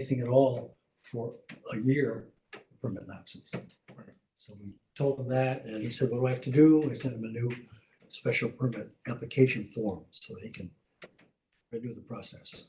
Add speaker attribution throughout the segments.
Speaker 1: anything at all for a year, permit lapses. So we told him that, and he said, what do I have to do? We sent him a new special permit application form so that he can redo the process.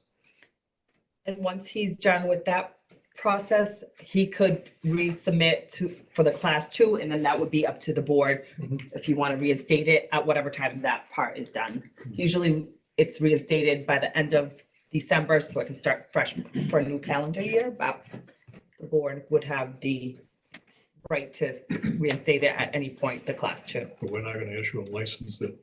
Speaker 2: And once he's done with that process, he could resubmit to, for the class two, and then that would be up to the board
Speaker 1: Mhm.
Speaker 2: if you want to reinstate it at whatever time that part is done.
Speaker 1: Mhm.
Speaker 2: Usually, it's reinstated by the end of December, so it can start fresh for a new calendar year, but the board would have the right to reinstate it at any point, the class two,
Speaker 3: But we're not gonna issue a license that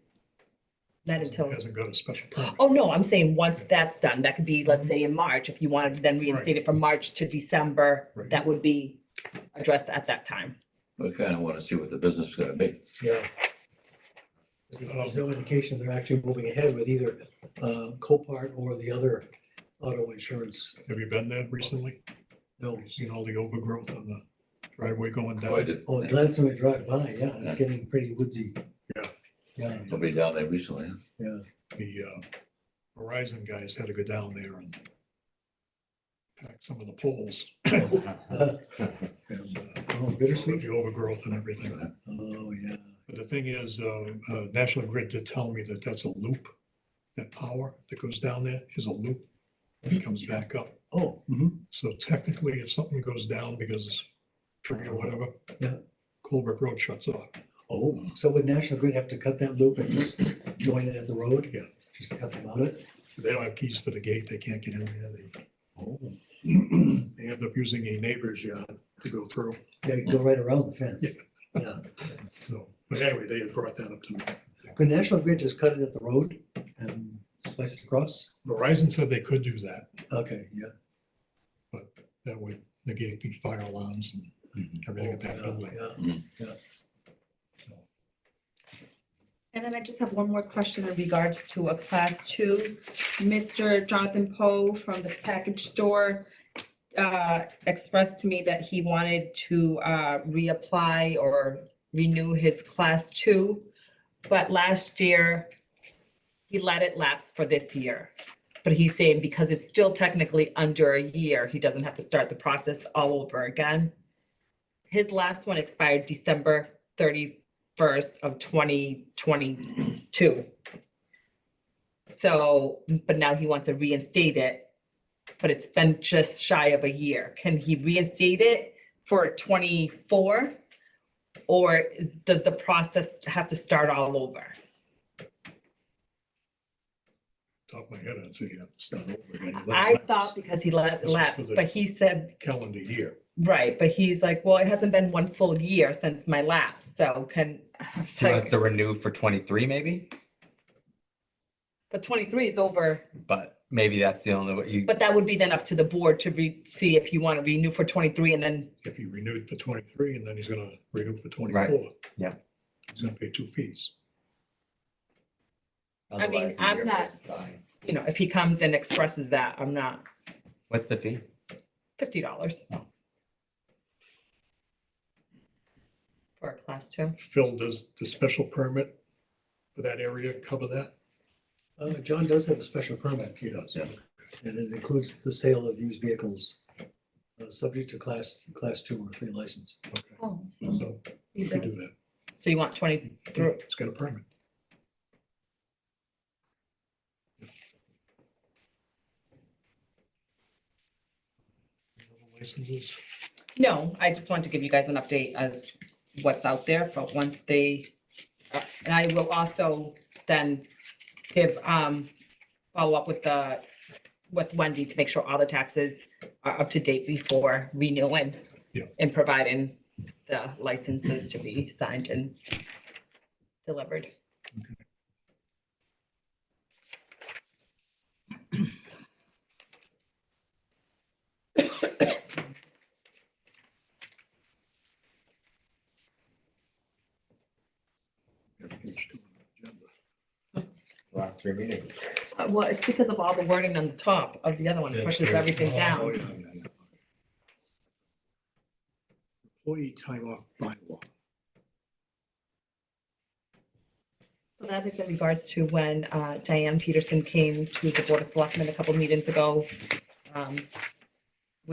Speaker 2: not until.
Speaker 3: hasn't got a special permit.
Speaker 2: Oh, no, I'm saying once that's done, that could be, let's say, in March, if you wanted to then reinstate it from March to December,
Speaker 3: Right.
Speaker 2: that would be addressed at that time.
Speaker 4: We kind of want to see what the business is going to be.
Speaker 1: Yeah. There's no indication they're actually moving ahead with either uh, Copart or the other auto insurance.
Speaker 3: Have you been there recently?
Speaker 1: No,
Speaker 3: You've Seen all the overgrowth on the driveway going
Speaker 4: Oh, I
Speaker 3: down?
Speaker 4: did.
Speaker 1: oh, Glenn's we drive by, yeah, it's getting pretty woodsy.
Speaker 3: Yeah.
Speaker 1: Yeah,
Speaker 4: Somebody down there recently. huh?
Speaker 1: yeah.
Speaker 3: The uh, Verizon guys had to go down there and pack some of the poles and uh,
Speaker 1: Oh,
Speaker 3: with
Speaker 1: bittersweet.
Speaker 3: the overgrowth and everything.
Speaker 1: Oh, yeah.
Speaker 3: But the thing is, uh, uh, National Grid did tell me that that's a loop. That power that goes down there is a loop and comes back up.
Speaker 1: Oh, mhm.
Speaker 3: So technically, if something goes down because it's tree or whatever.
Speaker 1: Yeah.
Speaker 3: Colbrook Road shuts off.
Speaker 1: Oh, so would National Grid have to cut that loop and just join it at the road?
Speaker 3: Yeah.
Speaker 1: Just cut them out of it?
Speaker 3: They don't have keys to the gate. They can't get in there. They,
Speaker 1: Oh.
Speaker 3: they end up using a neighbor's yard to go through.
Speaker 1: They go right around the fence. Yeah.
Speaker 3: So, but anyway, they had brought that up to me.
Speaker 1: Could National Grid just cut it at the road and slice it across?
Speaker 3: Verizon said they could do that.
Speaker 1: Okay, yeah.
Speaker 3: That would negate the fire alarms and everything at that
Speaker 1: Oh,
Speaker 3: building.
Speaker 1: yeah, yeah.
Speaker 2: And then I just have one more question in regards to a class two. Mr. Jonathan Poe from the package store uh, expressed to me that he wanted to uh, reapply or renew his class two. But last year, he let it lapse for this year. But he's saying because it's still technically under a year, he doesn't have to start the process all over again. His last one expired December thirty first of twenty twenty-two. So, but now he wants to reinstate it, but it's been just shy of a year. Can he reinstate it for twenty-four? Or is- does the process have to start all over?
Speaker 3: Top of my head, I'd say you have to start over again. Let it
Speaker 2: I
Speaker 3: lapse.
Speaker 2: thought because he let
Speaker 3: This
Speaker 2: it
Speaker 3: is for
Speaker 2: lapse,
Speaker 3: the-
Speaker 2: but he said,
Speaker 3: Calendar year.
Speaker 2: right, but he's like, well, it hasn't been one full year since my lapse, so can. I was
Speaker 5: So
Speaker 2: like,
Speaker 5: that's the renew for twenty-three maybe,
Speaker 2: But twenty-three is over.
Speaker 5: but maybe that's the only way you,
Speaker 2: But that would be then up to the board to re, see if you want to renew for twenty-three and then,
Speaker 3: If he renewed for twenty-three and then he's gonna renew for twenty-four.
Speaker 5: yeah.
Speaker 3: He's gonna pay two fees.
Speaker 2: I mean,
Speaker 5: otherwise the
Speaker 2: I'm
Speaker 5: year
Speaker 2: not-
Speaker 5: goes by.
Speaker 2: you know, if he comes and expresses that, I'm not,
Speaker 5: What's the fee?
Speaker 2: fifty dollars. For a class two.
Speaker 3: Phil, does the special permit for that area cover that?
Speaker 1: Uh, John does have a special permit
Speaker 3: He does.
Speaker 4: Yeah.
Speaker 1: and it includes the sale of used vehicles. Uh, subject to class, class two or three license.
Speaker 3: Okay,
Speaker 2: Oh.
Speaker 3: so we could do that.
Speaker 2: So you want twenty,
Speaker 3: Yeah, It's got a permit. Licenses,
Speaker 2: no, I just wanted to give you guys an update as what's out there, but once they, uh, and I will also then give, um, follow up with the, with Wendy to make sure all the taxes are up to date before renewing.
Speaker 3: Yeah.
Speaker 2: And providing the licenses to be signed and delivered.
Speaker 3: everything's still on the agenda.
Speaker 5: Last three meetings.
Speaker 2: Uh, Well, it's because of all the wording on the top of the other one, it pushes everything
Speaker 3: Oh,
Speaker 2: down.
Speaker 3: yeah, yeah, yeah. Employee time off bylaw.
Speaker 2: So That is in regards to when uh, Diane Peterson came to the Board of Selectmen a couple meetings ago. um,